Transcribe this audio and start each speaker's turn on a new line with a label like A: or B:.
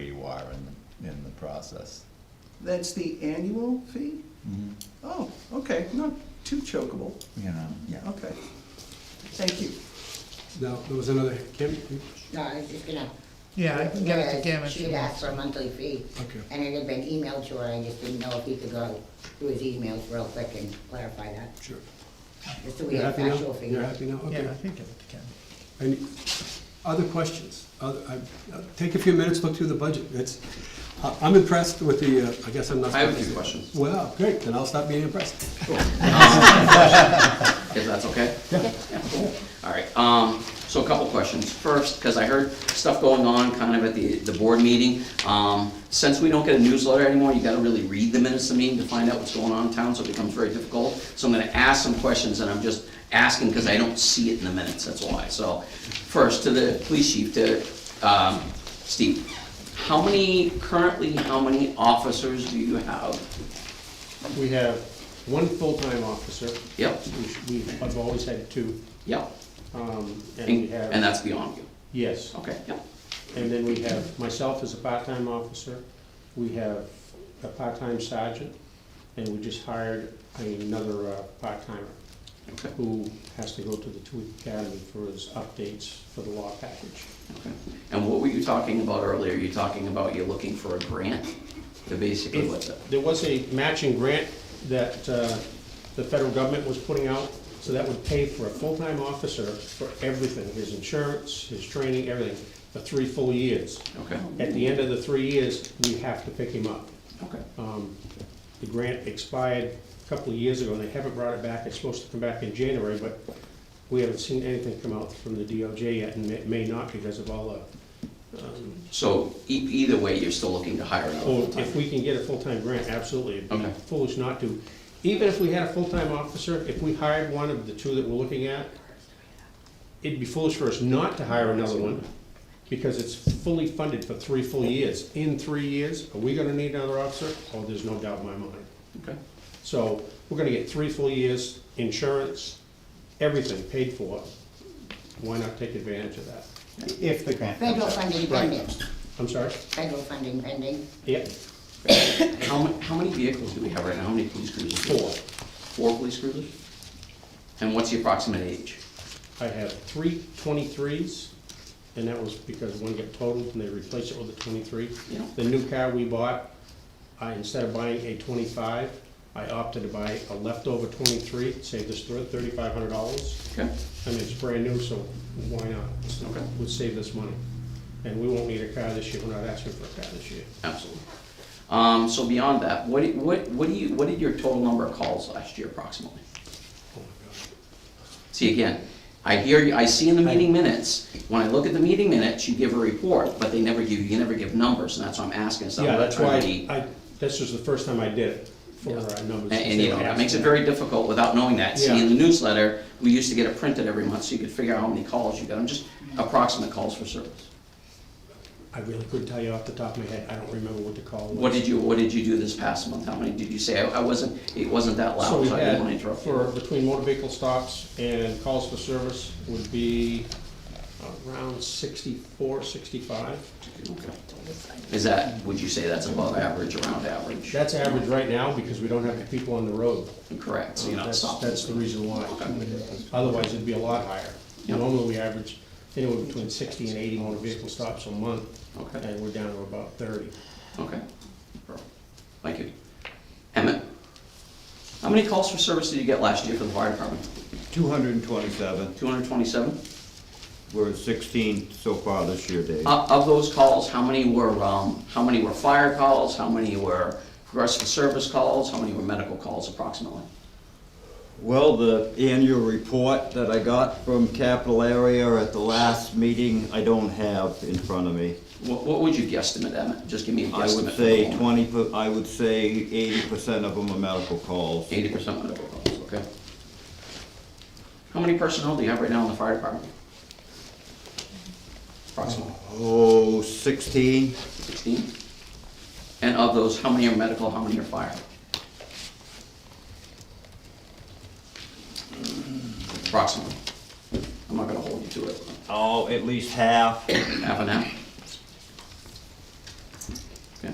A: in the process.
B: That's the annual fee? Oh, okay, not too chokeable,
A: You know, yeah.
B: okay. Thank you.
C: Now, there was another, Kim?
D: No, I was just gonna.
E: Yeah, I can get it to
D: Whereas
E: Kim if she
D: She'd
E: wants.
D: asked for a monthly fee.
C: Okay.
D: And it had been emailed to her, I just didn't know if he could go through his emails real quick and clarify that,
C: Sure.
D: just so we
C: You're
D: have
C: happy now?
D: actual figures.
C: You're happy now?
E: Yeah,
C: Okay.
E: I can get it to Kim.
C: Any other questions? Other- I- uh, Take a few minutes, look through the budget. It's, I- I'm impressed with the, uh, I guess I'm not.
F: I have a
C: supposed
F: few
C: to say-
F: questions,
C: Well, great, then I'll stop being impressed.
F: if that's okay? All right, um, so a couple questions. First, because I heard stuff going on kind of at the, the board meeting. Um, since we don't get a newsletter anymore, you gotta really read the minutes of the meeting to find out what's going on in town, so it becomes very difficult. So I'm gonna ask some questions, and I'm just asking because I don't see it in the minutes, that's why. So, first, to the police chief, to, um, Steve, how many, currently, how many officers do you have?
G: We have one full-time officer,
F: Yep,
G: which we, I've always had two,
F: yep,
G: um, and we have.
F: and that's beyond you.
G: Yes,
F: Okay, yep.
G: and then we have myself as a part-time officer, we have a part-time sergeant, and we just hired another uh, part-timer
F: Okay,
G: who has to go to the Tooth Academy for his updates for the law package.
F: okay. And what were you talking about earlier? You're talking about you're looking for a grant to basically what the,
G: There was a matching grant that uh, the federal government was putting out, so that would pay for a full-time officer for everything, his insurance, his training, everything, for three full years.
F: okay,
G: At the end of the three years, we have to pick him up.
F: okay,
G: Um, The grant expired a couple of years ago, and they haven't brought it back. It's supposed to come back in January, but we haven't seen anything come out from the DOJ yet, and it may not because of all the um,
F: so e- either way, you're still looking to hire another
G: Oh,
F: full-time?
G: if we can get a full-time grant, absolutely, it'd be
F: Okay.
G: foolish not to. Even if we had a full-time officer, if we hired one of the two that we're looking at, it'd be foolish for us not to hire another one, because it's fully funded for three full years. In three years, are we gonna need another officer? Oh, there's no doubt in my mind.
F: Okay,
G: So, we're gonna get three full years, insurance, everything paid for. Why not take advantage of that?
H: If the grant comes
D: Federal
H: up.
D: funding pending,
G: I'm sorry?
D: federal funding pending.
G: Yeah,
F: how many, how many vehicles do we have right now? How many police cruisers?
G: four.
F: Four police cruisers? And what's the approximate age?
G: I have three twenty-threes, and that was because one got totaled and they replaced it with a twenty-three.
F: Yeah.
G: The new car we bought, I, instead of buying a twenty-five, I opted to buy a leftover twenty-three, It saved us thirty-five hundred dollars.
F: Okay,
G: I mean, it's brand new, so why not? It's-
F: Okay.
G: Would save us money. And we won't need a car this year, we're not asking for a car this year.
F: absolutely. Um, so beyond that, what, do- what, what do you, what did your total number of calls last year approximately?
G: Oh my
F: See, again, I hear, you. I see in the meeting minutes, when I look at the meeting minutes, you give a report, but they never give, you never give numbers, and that's why I'm asking, so.
G: God. Yeah, that's why
F: I-
G: I, this was the first time I did it for our numbers.
F: And, and, you know, that makes it
G: Yeah.
F: very difficult without knowing that. See,
G: Yeah.
F: in the newsletter, we used to get it printed every month, so you could figure out how many calls you got, I'm just approximate calls for service.
G: I really couldn't tell you off the top of my head, I don't remember what the call was.
F: What did you, what did you do this past month? How many did you say? I I wasn't, it wasn't that
G: So
F: loud,
G: we
F: so I didn't want to
G: had,
F: interrupt
G: for,
F: you.
G: between motor vehicle stops and calls for service would be around 64, 65.
F: Okay. Is that, would you say that's above average, around average?
G: That's average right now because we don't have the people on the road.
F: Correct, so you're not
G: That's-
F: stopping.
G: That's the reason why. Otherwise, it'd be a lot higher.
F: Yeah.
G: Normally, we average anywhere between sixty and eighty motor vehicle stops a month,
F: Okay.
G: and we're down to about thirty.
F: Okay. Thank you. Emmett? How many calls for service did you get last year for the fire department?
H: 227,
F: Two hundred twenty-seven?
H: we're at 16 so far this year, Dave.
F: Uh, Of, of those calls, how many were, um, how many were fire calls? How many were progressive service calls? How many were medical calls approximately?
H: Well, the annual report that I got from Capital Area at the last meeting, I don't have in front of me.
F: What, what would you guesstimate, Emmett? Just give me a guesstimate.
H: I would say 20, per- I would say 80% of them are medical calls.
F: Eighty percent medical calls, okay. How many personnel do you have right now in the fire department? Approximately
H: Oh, 16?
F: sixteen? And of those, how many are medical, how many are fire? Approximately. I'm not gonna hold you to it.
H: Oh, at least half.
F: Half and half?